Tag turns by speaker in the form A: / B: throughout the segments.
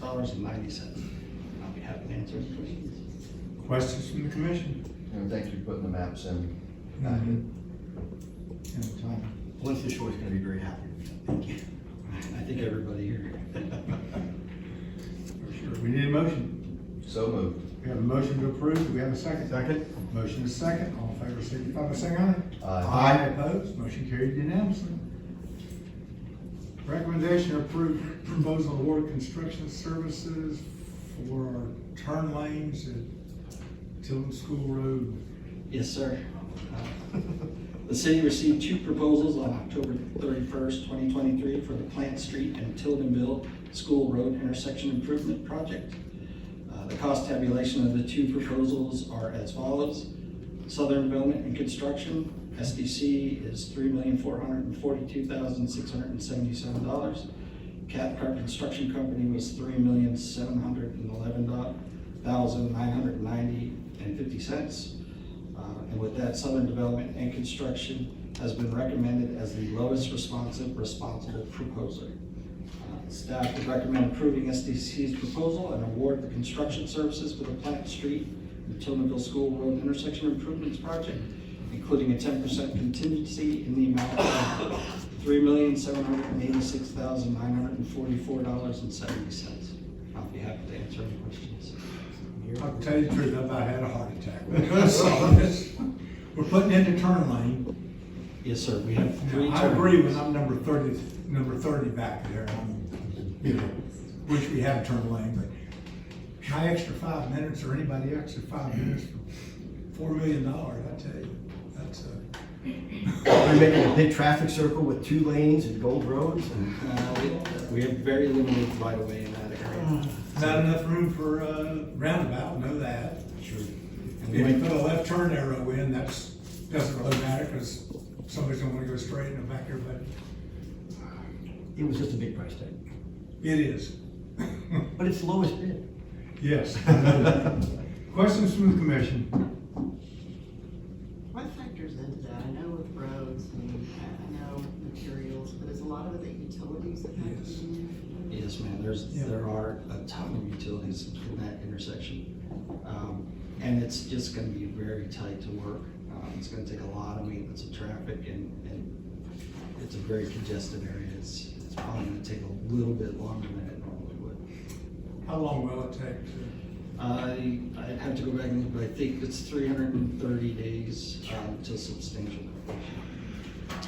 A: dollars and ninety cents. I'll be happy to answer any questions.
B: Questions from the commission?
C: And thank you for putting the maps in.
B: Anytime.
A: Winston Shore's gonna be very happy with that, thank you. I think everybody here.
B: For sure. We need a motion.
C: So moved.
B: We have a motion to approve. Do we have a second? Second. Motion is second. All in favor, signify by saying aye.
C: Aye.
B: Opposed, motion carried unanimously. Recommendation to approve proposal award construction services for our turn lanes at Tilden School Road.
A: Yes, sir. Uh, The city received two proposals on October thirty-first, twenty twenty-three for the Plant Street and Tildenville School Road Intersection Improvement Project. Uh, The cost tabulation of the two proposals are as follows. Southern Development and Construction, SDC, is three million, four hundred and forty-two thousand, six hundred and seventy-seven dollars. Cathcart Construction Company was three million, seven hundred and eleven thousand, nine hundred and ninety and fifty cents. Uh, And with that, Southern Development and Construction has been recommended as the lowest responsive responsible proposer. Uh, Staff would recommend approving SDC's proposal and award the construction services for the Plant Street and Tillmanville School Road intersection improvements project, including a ten percent contingency in the amount of three million, seven hundred and eighty-six thousand, nine hundred and forty-four dollars and seventy cents. I'll be happy to answer any questions.
B: I'll tell you the truth, I about had a heart attack. when I saw this. We're putting in the turn lane.
A: Yes, sir, we have three.
B: I agree
A: turns.
B: when I'm number thirty, number thirty back there. I'm, You know, wish we had a turn lane, but my extra five minutes or anybody extra five minutes for four million dollars, I tell you, that's uh, a.
D: We're making a big traffic circle with two lanes and gold roads and
A: Uh, we- We have very limited right of way in that area.
B: Not enough room for a roundabout, know that.
D: sure.
B: If you put a left turn arrow in, that's, doesn't really matter, cause somebody's gonna wanna go straight and back here, but
D: It was just a big price tag,
B: it is.
D: but it's the lowest bid.
B: Yes. Questions from the commission?
E: What factors into that? I know with roads and I know materials, but is a lot of it the utilities that have to
B: Yes.
E: be in
A: Yes, man, there's,
B: Yeah.
A: there are a ton of utilities in that intersection. Um, And it's just gonna be very tight to work. Um, It's gonna take a lot of maintenance of traffic and, and it's a very congested area. It's, it's probably gonna take a little bit longer than it normally would.
B: How long will it take to?
A: I, I'd have to go back and look, but I think it's three hundred and thirty days um, to substantial completion.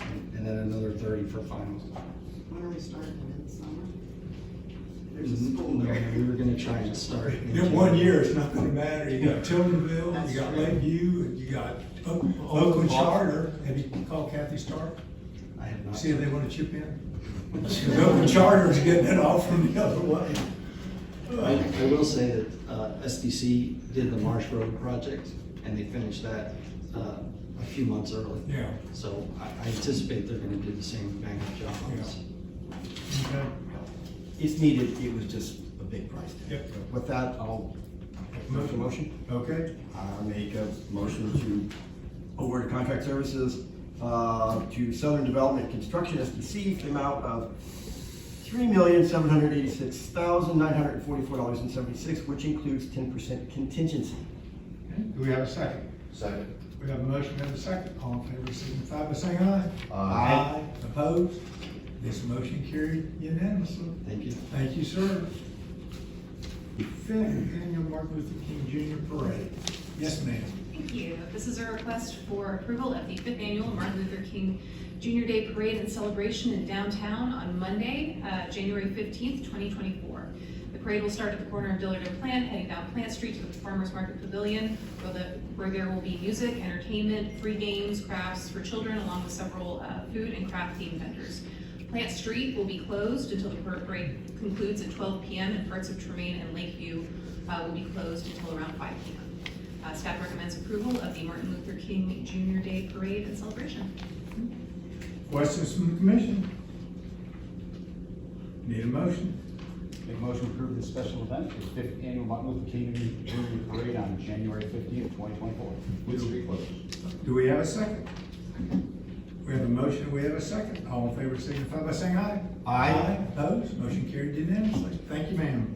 A: And- And then another thirty for final.
E: there? When are we starting in the summer? There's a school
A: No,
D: Mm-hmm.
E: there.
A: We were gonna try and start.
B: In one year, it's not gonna matter, you got Tildenville, you got Lakeview, and you got Oak- Oakland Charter, have you called Kathy Stark?
A: I have not.
B: See if they wanna chip in? Cause Oakland Charter's getting it all from the other way.
A: I, I will say that, uh, SDC did the Marsh Road project, and they finished that, uh, a few months early.
B: Yeah.
A: So I, I anticipate they're gonna do the same bang up job on this.
B: Okay.
D: It's needed, it was just a big price tag.
B: Yep.
D: With that, I'll make a motion.
B: Okay,
D: I make a motion to award contract services uh, to Southern Development Construction SDC for the amount of three million, seven hundred eighty-six thousand, nine hundred and forty-four dollars and seventy-six, which includes ten percent contingency.
B: do we have a second?
C: Second.
B: We have a motion, we have a second, all in favor, signify by saying aye.
C: Aye.
B: Opposed? This motion carried unanimously.
A: Thank you.
B: Thank you, sir. Fifth annual Martin Luther King Jr. Parade. Yes, ma'am.
F: Thank you. This is a request for approval of the fifth annual Martin Luther King Junior Day Parade and Celebration in downtown on Monday, uh, January fifteenth, twenty twenty-four. The parade will start at the corner of Dillard and Plant, heading down Plant Street to the Farmers Market Pavilion, where the, where there will be music, entertainment, free games, crafts for children, along with several, uh, food and craft themed vendors. Plant Street will be closed until the parade concludes at twelve PM, and parts of Tremaine and Lakeview, uh, will be closed until around five PM. Uh, Staff recommends approval of the Martin Luther King Junior Day Parade and Celebration.
B: Questions from the commission? Need a motion?
G: Make a motion to approve this special event, the fifth annual Martin Luther King Junior Parade on January fifteenth, twenty twenty-four.
C: With street closed.
B: Do we have a second? We have a motion, we have a second. All in favor signify by saying aye.
D: Aye.
B: Opposed? Motion carried unanimously. Thank you, ma'am.